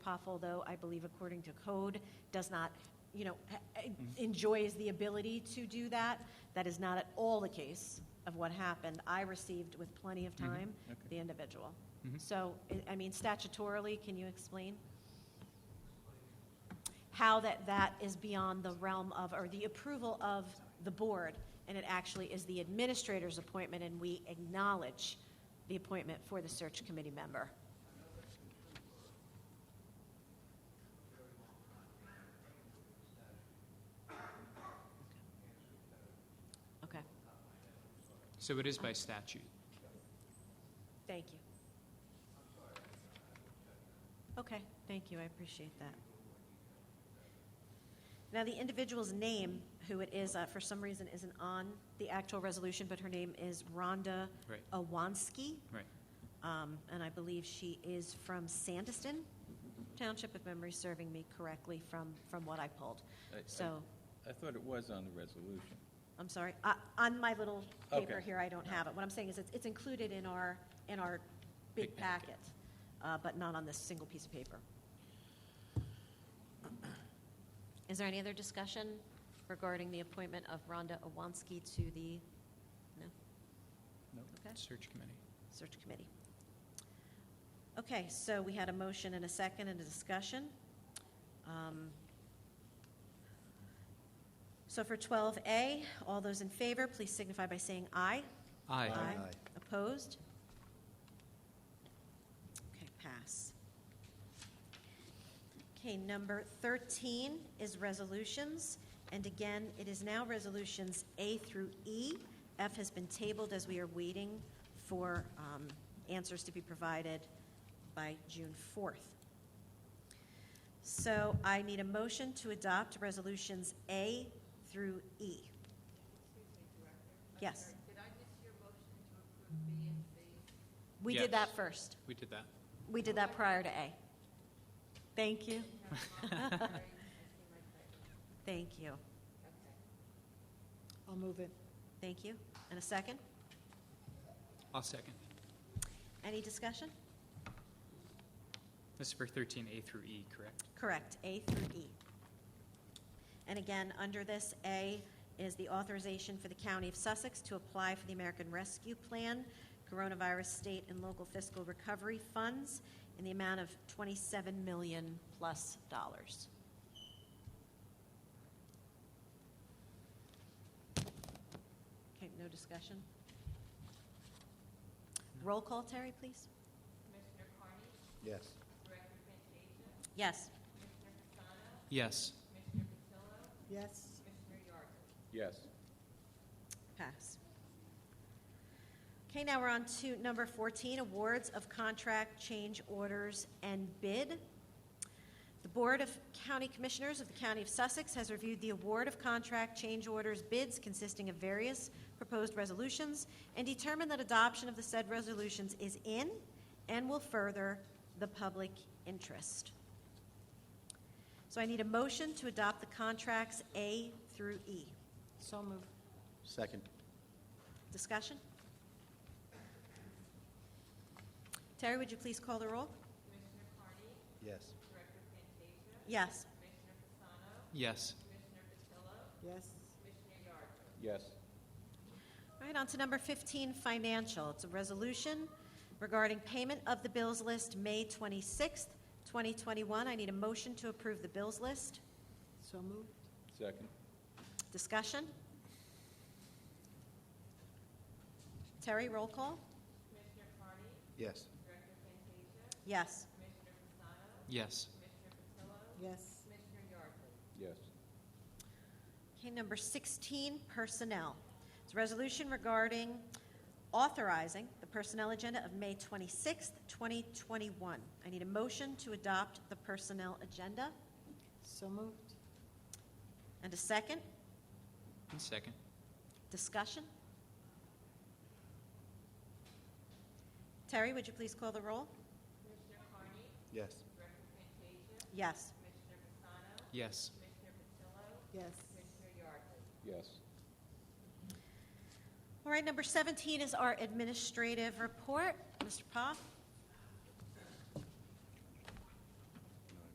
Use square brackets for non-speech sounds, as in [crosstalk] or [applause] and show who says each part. Speaker 1: Poffel, though, I believe according to code, does not, you know, ha- enjoys the ability to do that. That is not at all the case of what happened. I received with plenty of time
Speaker 2: okay.
Speaker 1: the individual.
Speaker 2: Mhm.
Speaker 1: So, I- I mean, statutorily, can you explain? how that that is beyond the realm of, or the approval of the board, and it actually is the administrator's appointment, and we acknowledge the appointment for the search committee member. Okay,
Speaker 2: So it is by statute.
Speaker 1: thank you. Okay, thank you, I appreciate that. Now, the individual's name, who it is, uh, for some reason isn't on the actual resolution, but her name is Rhonda
Speaker 2: Right.
Speaker 1: Owanski.
Speaker 2: Right.
Speaker 1: Um, and I believe she is from Sandiston Township, if memory's serving me correctly from, from what I pulled.
Speaker 3: I- I-
Speaker 1: So,
Speaker 3: I thought it was on the resolution.
Speaker 1: I'm sorry, uh, on my little paper
Speaker 3: Okay.
Speaker 1: here, I don't have it. What I'm saying is it's, it's included in our, in our big
Speaker 3: Big packet.
Speaker 1: packet, uh, but not on this single piece of paper. Is there any other discussion regarding the appointment of Rhonda Owanski to the, no,
Speaker 2: Nope.
Speaker 1: Okay.
Speaker 2: Search committee.
Speaker 1: search committee? Okay, so we had a motion and a second and a discussion. Um, So for 12A, all those in favor, please signify by saying aye.
Speaker 2: Aye.
Speaker 1: Opposed? Okay, pass. Okay, number 13 is resolutions, and again, it is now resolutions A through E. F has been tabled as we are waiting for um, answers to be provided by June 4th. So I need a motion to adopt resolutions A through E. Yes,
Speaker 4: Did I miss your motion to approve B and C?
Speaker 1: we did that
Speaker 2: Yes.
Speaker 1: first.
Speaker 2: We did that.
Speaker 1: We did that prior to A. Thank [laughs] you.
Speaker 4: Sorry, I see my typo.
Speaker 1: Thank you.
Speaker 4: Okay.
Speaker 5: I'll move it.
Speaker 1: Thank you. And a second?
Speaker 2: I'll second.
Speaker 1: Any discussion?
Speaker 2: This is for 13A through E, correct?
Speaker 1: Correct, A through E. And again, under this, A is the authorization for the County of Sussex to apply for the American Rescue Plan, Coronavirus State and Local Fiscal Recovery Funds in the amount of 27 million plus dollars. Okay, no discussion? Roll call, Terry, please.
Speaker 4: Commissioner Carney,
Speaker 6: Yes.
Speaker 4: Director Fantasia,
Speaker 1: Yes.
Speaker 4: Commissioner Fasano,
Speaker 2: Yes.
Speaker 4: Commissioner Patillo,
Speaker 5: Yes,
Speaker 4: Commissioner Yardley.
Speaker 3: Yes.
Speaker 1: Pass. Okay, now we're on to number 14, awards of contract change orders and bid. The Board of County Commissioners of the County of Sussex has reviewed the award of contract change orders bids consisting of various proposed resolutions and determined that adoption of the said resolutions is in and will further the public interest. So I need a motion to adopt the contracts A through E.
Speaker 5: so move.
Speaker 6: Second.
Speaker 1: Discussion? Terry, would you please call the roll?
Speaker 4: Commissioner Carney,
Speaker 6: Yes.
Speaker 4: Director Fantasia,
Speaker 1: Yes.
Speaker 4: Commissioner Fasano,
Speaker 2: Yes.
Speaker 4: Commissioner Patillo,
Speaker 5: Yes,
Speaker 4: Commissioner Yardley.
Speaker 3: Yes.
Speaker 1: All right, on to number 15, financial. It's a resolution regarding payment of the bills list, May 26th, 2021. I need a motion to approve the bills list.
Speaker 5: so moved.
Speaker 3: Second.
Speaker 1: Discussion? Terry, roll call?
Speaker 4: Commissioner Carney,
Speaker 6: Yes.
Speaker 4: Director Fantasia,
Speaker 1: Yes.
Speaker 4: Commissioner Fasano,
Speaker 2: Yes.
Speaker 4: Commissioner Patillo,
Speaker 5: Yes,
Speaker 4: Commissioner Yardley.
Speaker 3: Yes.
Speaker 1: Okay, number 16, personnel. It's a resolution regarding authorizing the personnel agenda of May 26th, 2021. I need a motion to adopt the personnel agenda
Speaker 5: so moved.
Speaker 1: and a second
Speaker 2: And second.
Speaker 1: discussion. Terry, would you please call the roll?
Speaker 4: Commissioner Carney,
Speaker 6: Yes.
Speaker 4: Director Fantasia,
Speaker 1: Yes.
Speaker 4: Commissioner Fasano,
Speaker 2: Yes.
Speaker 4: Commissioner Patillo,
Speaker 5: Yes,
Speaker 4: Commissioner Yardley.
Speaker 3: Yes.
Speaker 1: All right, number 17 is our administrative report. Mr. Poff?